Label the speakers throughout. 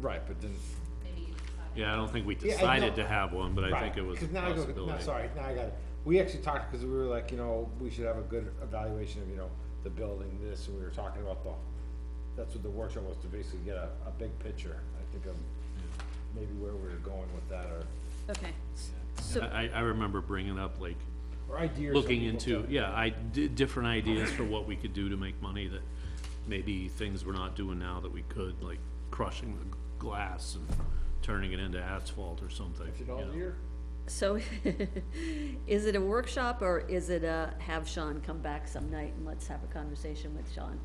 Speaker 1: Right, but then,
Speaker 2: maybe you decide.
Speaker 3: Yeah, I don't think we
Speaker 1: Yeah, I
Speaker 3: decided
Speaker 1: know.
Speaker 3: to have one, but I
Speaker 1: right,
Speaker 3: think it was a
Speaker 1: because now I go, now,
Speaker 3: possibility.
Speaker 1: sorry, now I got it. We actually talked, because we were like, you know, we should have a good evaluation of, you know, the building, this, and we were talking about the, that's what the workshop was, to basically get a, a big picture, I think of maybe where we were going with that, or,
Speaker 4: Okay, s-
Speaker 3: I,
Speaker 4: so,
Speaker 3: I I remember bringing up like,
Speaker 1: or ideas. of
Speaker 3: looking
Speaker 1: people
Speaker 3: into,
Speaker 1: to-
Speaker 3: yeah, I did different ideas for what we could do to make money that maybe things we're not doing now that we could, like crushing the glass and turning it into asphalt or something.
Speaker 1: Is it
Speaker 3: you
Speaker 1: all
Speaker 3: know.
Speaker 1: year?
Speaker 4: so, is it a workshop or is it a have Sean come back some night and let's have a conversation with Sean?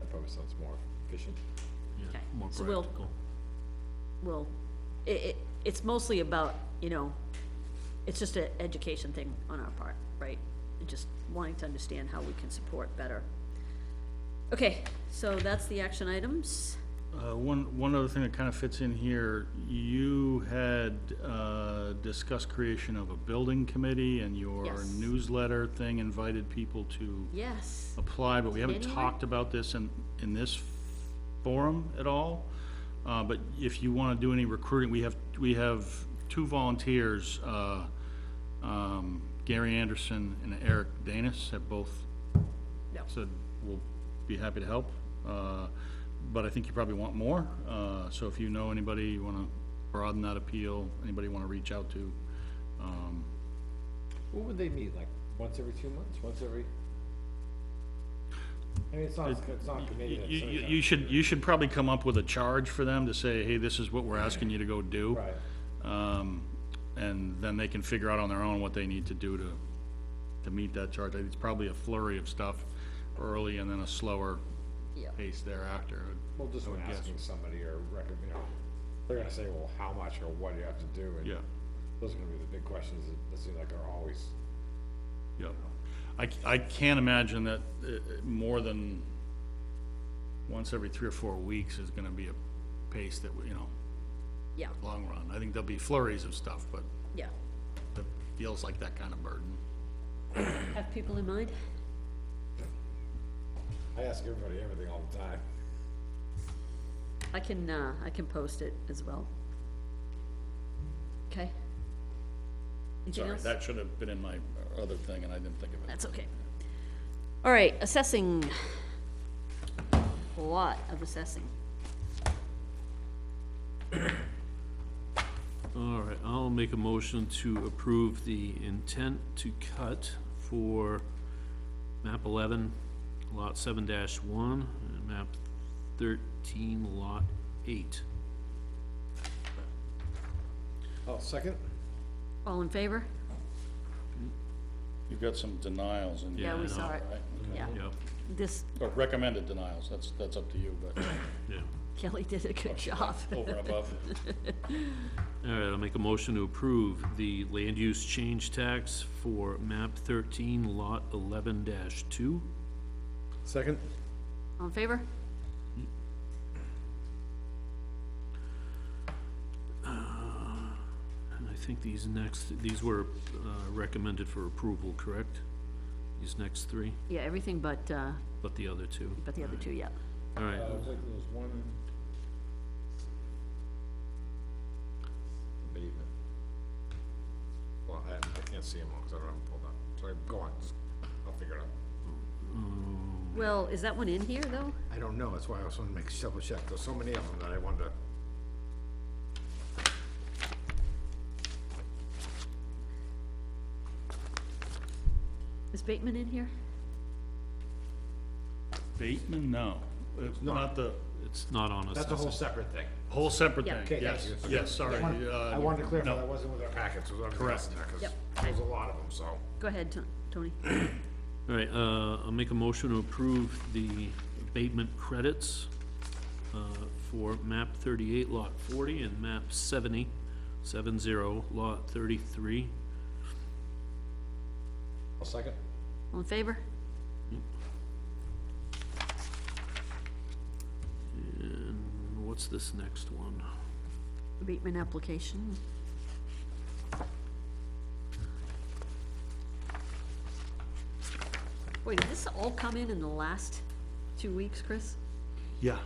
Speaker 1: That probably sounds more efficient.
Speaker 3: Yeah,
Speaker 4: Okay,
Speaker 3: More
Speaker 4: so we'll-
Speaker 3: practical.
Speaker 4: Well, i- i- it's mostly about, you know, it's just an education thing on our part, right? Just wanting to understand how we can support better. Okay, so that's the action items.
Speaker 5: Uh, One, one other thing that kind of fits in here, you had uh, discussed creation of a building committee, and your
Speaker 4: Yes.
Speaker 5: newsletter thing invited people to
Speaker 4: Yes,
Speaker 5: apply, but we haven't
Speaker 4: anyone?
Speaker 5: talked about this in, in this forum at all. Uh, But if you want to do any recruiting, we have, we have two volunteers, uh, um, Gary Anderson and Eric Danis have both
Speaker 4: no,
Speaker 5: said, we'll be happy to help, uh, but I think you probably want more, uh, so if you know anybody, you wanna broaden that appeal, anybody you wanna reach out to, um,
Speaker 1: What would they meet, like, once every two months, once every? I mean, it's not, it's not committed.
Speaker 5: you,
Speaker 1: it's
Speaker 5: you,
Speaker 1: not-
Speaker 5: you should, you should probably come up with a charge for them to say, hey, this is what we're asking you to go do.
Speaker 1: Right,
Speaker 5: Um, and then they can figure out on their own what they need to do to, to meet that charge, it's probably a flurry of stuff early and then a slower
Speaker 4: yeah.
Speaker 5: pace thereafter.
Speaker 1: well, just when asking somebody or recommend, you know, they're gonna say, well, how much or what do you have to do? and
Speaker 5: Yeah.
Speaker 1: Those are gonna be the big questions that- that seem like are always,
Speaker 5: Yep. I, c- I can't imagine that, uh, uh, more than once every three or four weeks is gonna be a pace that, we- you know,
Speaker 4: Yeah,
Speaker 5: long run. I think there'll be flurries of stuff, but
Speaker 4: yeah.
Speaker 5: it feels like that kind of burden.
Speaker 4: Have people in mind?
Speaker 1: I ask everybody everything all the time.
Speaker 4: I can, uh, I can post it as well. Okay? Anything
Speaker 5: Sorry,
Speaker 4: else?
Speaker 5: that should have been in my other thing and I didn't think of it.
Speaker 4: That's okay. All right, assessing. A lot of assessing.
Speaker 3: All right, I'll make a motion to approve the intent to cut for map eleven, lot seven dash one, and map thirteen, lot eight.
Speaker 1: Oh, second?
Speaker 4: All in favor?
Speaker 5: You've got some denials in
Speaker 3: Yeah,
Speaker 5: here,
Speaker 4: Yeah,
Speaker 3: I
Speaker 4: we
Speaker 3: know,
Speaker 4: saw it.
Speaker 5: right?
Speaker 4: Yeah,
Speaker 3: Yep,
Speaker 4: this,
Speaker 5: Or recommended denials, that's, that's up to you, but
Speaker 3: yeah.
Speaker 4: Kelly did a good job.
Speaker 5: over and above.
Speaker 3: All right, I'll make a motion to approve the land use change tax for map thirteen, lot eleven dash two.
Speaker 1: Second?
Speaker 4: All in favor?
Speaker 3: And I think these next, these were, uh, recommended for approval, correct? These next three,
Speaker 4: Yeah, everything but, uh,
Speaker 3: but the other two.
Speaker 4: but the other two, yeah.
Speaker 3: All right,
Speaker 1: Uh, it was like there was one. Abatement. Well, I, I can't see them all, cause I don't have them pulled up, so go on, just- I'll figure it out.
Speaker 4: Well, is that one in here, though?
Speaker 1: I don't know, that's why I also wanna make double check, there's so many of them that I wanted to.
Speaker 4: Is Bateman in here?
Speaker 5: Bateman, no, it's not the
Speaker 3: it's not on us.
Speaker 1: That's a whole separate thing.
Speaker 5: whole separate
Speaker 4: Yeah.
Speaker 5: thing,
Speaker 1: Okay, thank
Speaker 5: yes,
Speaker 1: you. Okay.
Speaker 5: yes, sorry.
Speaker 1: I wanted-
Speaker 5: uh,
Speaker 1: I wanted to clarify,
Speaker 5: no.
Speaker 1: that wasn't with our packets, it was on the
Speaker 5: Correct.
Speaker 1: rest of that, 'cause
Speaker 4: Yep.
Speaker 1: there's a lot of them, so.
Speaker 4: Go ahead, Ton- Tony.
Speaker 3: All right, uh, I'll make a motion to approve the abatement credits, uh, for map thirty-eight, lot forty, and map seventy, seven zero, lot thirty-three.
Speaker 1: A second?
Speaker 4: All in favor?
Speaker 3: And what's this next one?
Speaker 4: Abatement application. Wait, did this all come in in the last two weeks, Chris?
Speaker 5: Yeah,